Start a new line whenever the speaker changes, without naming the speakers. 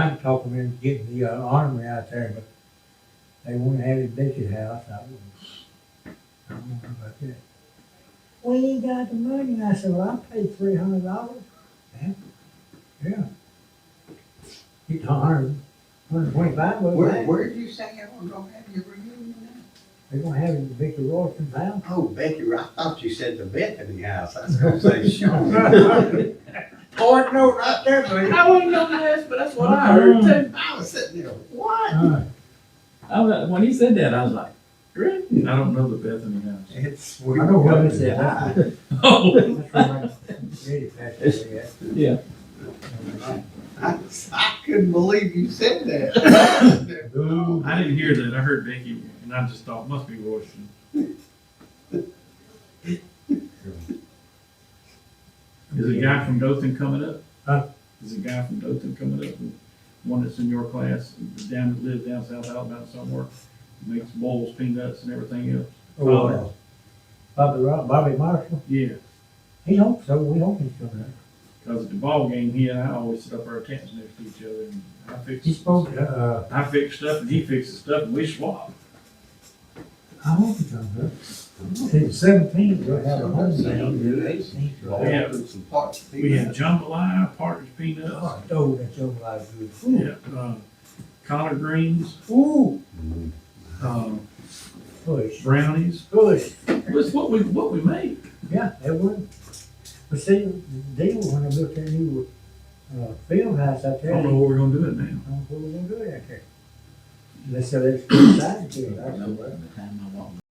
tried to talk them into getting the uh, armory out there, but they wouldn't have it at your house. I wouldn't. I don't know about that.
We ain't got the money. I said, well, I paid three hundred dollars.
Yeah. It's a hundred, hundred twenty-five of
Where,
them.
where did you say y'all were gonna have your reunion at?
They gonna have it in Victor Royston's house.
Oh, Becky, I thought you said the Bethany House, I was gonna say Sean. Oh, no, right there, buddy.
I wasn't gonna ask, but that's what I heard too.
I was sitting there, what?
Uh,
I was, when he said that, I was like, really? I don't know the Bethany house.
It's.
I know what it is.
Yeah.
Oh,
That's right. Really passed away.
yeah. Mm-hmm.
I, I couldn't believe you said that.
Ooh.
I didn't hear that. I heard Becky, and I just thought must be Royston. Is a guy from Dothan coming up?
Huh?
Is a guy from Dothan coming up? One that's in your class, down that lives down South Alabama somewhere, makes bowls, peanuts, and everything else.
Oh, uh, Bobby, Ro- Bobby Marshall,
Yeah,
he hopes so, we hope he's coming up.
because at the ball game, he and I always sit up our tents next to each other, and I fix.
He spoke, to, uh,
I fix stuff, and he fixes stuff, and we swap.
I hope he comes up. He's seventeen, Oh, we'll have a home game.
Yeah.
Eighteen.
Some parts.
We have jambalaya, partridge peanuts,
Oh, no, that's over like good.
yeah, uh, collard greens,
Ooh,
um,
push,
brownies.
push.
That's what we, what we make.
Yeah, it would. But see, the deal when I built that new, uh, field house out
I
there, I
don't know
don't
what we're gonna do it now.
know what we're gonna do out there. Unless they let us put a side to it, I don't know.
the time I walked